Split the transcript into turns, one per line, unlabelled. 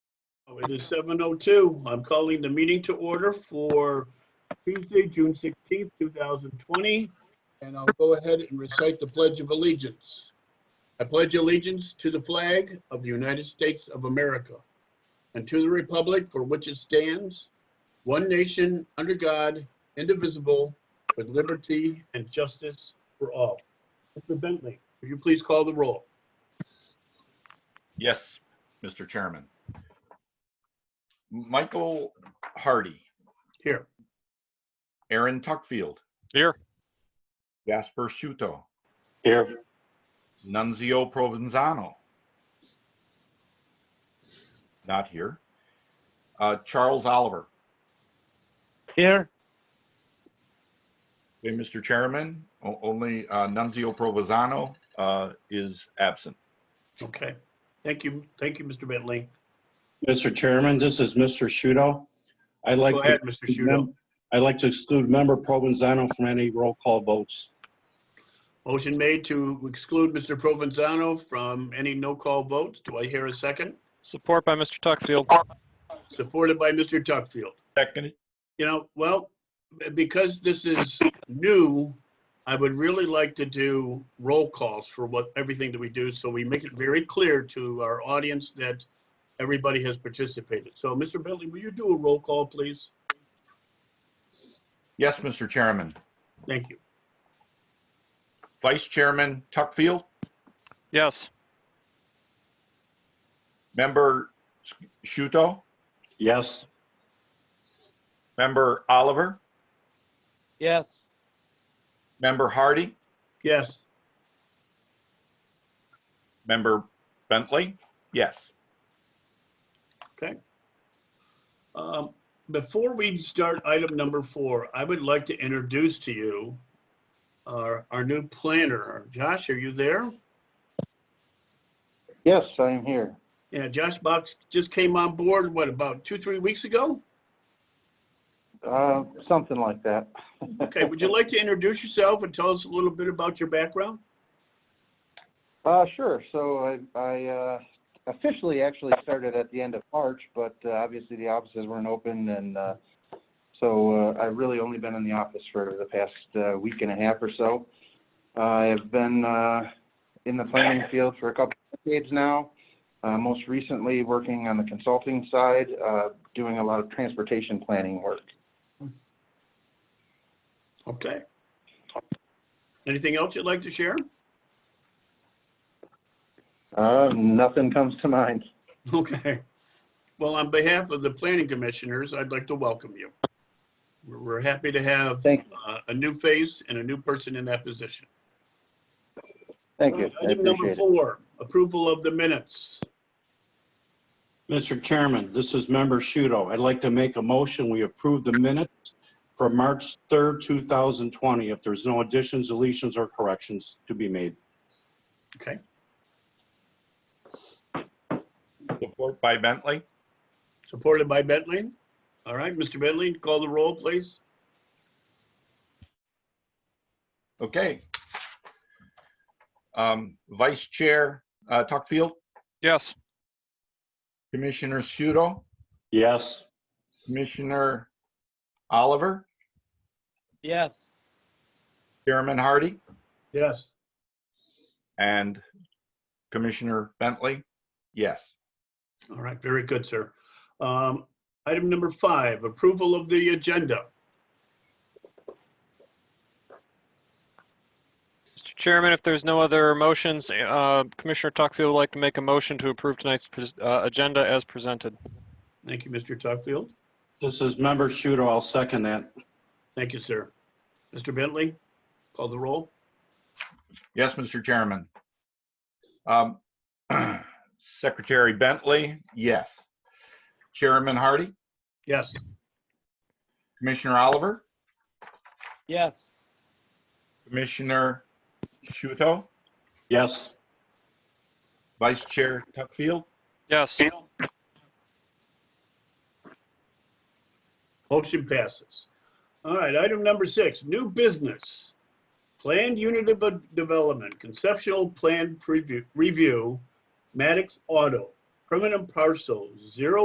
It is 7:02. I'm calling the meeting to order for Tuesday, June 16th, 2020. And I'll go ahead and recite the Pledge of Allegiance. I pledge allegiance to the flag of the United States of America and to the republic for which it stands, one nation, under God, indivisible, with liberty and justice for all. Mr. Bentley, will you please call the roll?
Yes, Mr. Chairman. Michael Hardy,
Here.
Aaron Tuckfield.
Here.
Jasper Shuto,
Here,
Nunzio Provenzano. Not here. Uh, Charles Oliver.
Here.
Okay, Mr. Chairman, o- only uh, Nunzio Provenzano uh, is absent.
Okay. Thank you. Thank you, Mr. Bentley.
Mr. Chairman, this is Mr. Shudo. I'd like.
Go
to-
ahead, Mr. Shudo.
I'd like to exclude member Provenzano from any roll call votes.
Motion made to exclude Mr. Provenzano from any no-call votes. Do I hear a second?
Support by Mr. Tuckfield.
Supported by Mr. Tuckfield.
Second,
You know, well, b- because this is new, I would really like to do roll calls for what, everything that we do, so we make it very clear to our audience that everybody has participated. So, Mr. Bentley, will you do a roll call, please?
yes, Mr. Chairman.
Thank you.
Vice Chairman Tuckfield,
Yes.
Member Shuto,
Yes.
Member Oliver,
Yes.
Member Hardy,
Yes.
Member Bentley? Yes.
Um, Before we start item number four, I would like to introduce to you our, our new planner. Josh, are you there?
Yes, I am here.
Yeah, Josh Box just came on board, what, about two, three weeks ago?
Uh, Something like that.
Okay, would you like to introduce yourself and tell us a little bit about your background?
Uh, Sure. So I- I uh, officially actually started at the end of March, but uh, obviously the offices weren't open and uh, so uh, I've really only been in the office for the past uh, week and a half or so. I have been uh, in the planning field for a couple of decades now, uh, most recently working on the consulting side, uh, doing a lot of transportation planning work.
Okay. Anything else you'd like to share?
Uh, Nothing comes to mind.
Okay. Well, on behalf of the planning commissioners, I'd like to welcome you. We're, we're happy to have
Thank
uh, a new face and a new person in that position.
Thank you. I
Item
appreciate
number
it.
four, approval of the minutes.
Mr. Chairman, this is member Shudo. I'd like to make a motion. We approve the minutes for March 3rd, 2020, if there's no additions, deletions, or corrections to be made.
Okay,
Support by Bentley?
supported by Bentley. All right, Mr. Bentley, call the roll, please.
Okay. Um, Vice Chair uh, Tuckfield,
Yes.
Commissioner Shudo,
Yes.
Commissioner Oliver,
Yes.
Chairman Hardy,
Yes.
and Commissioner Bentley? Yes.
All right, very good, sir. Um, Item number five, approval of the agenda.
Mr. Chairman, if there's no other motions, uh, Commissioner Tuckfield would like to make a motion to approve tonight's pres- uh, agenda as presented.
Thank you, Mr. Tuckfield.
This is member Shudo. I'll second that.
Thank you, sir. Mr. Bentley, call the roll.
Yes, Mr. Chairman. Um, Secretary Bentley? Yes. Chairman Hardy,
Yes.
Commissioner Oliver,
Yes.
Commissioner Shuto,
Yes.
Vice Chair Tuckfield?
Yes.
Motion passes. All right, item number six, new business. Planned unit of development, conceptual plan preview, review, Maddox Auto, permanent parcel zero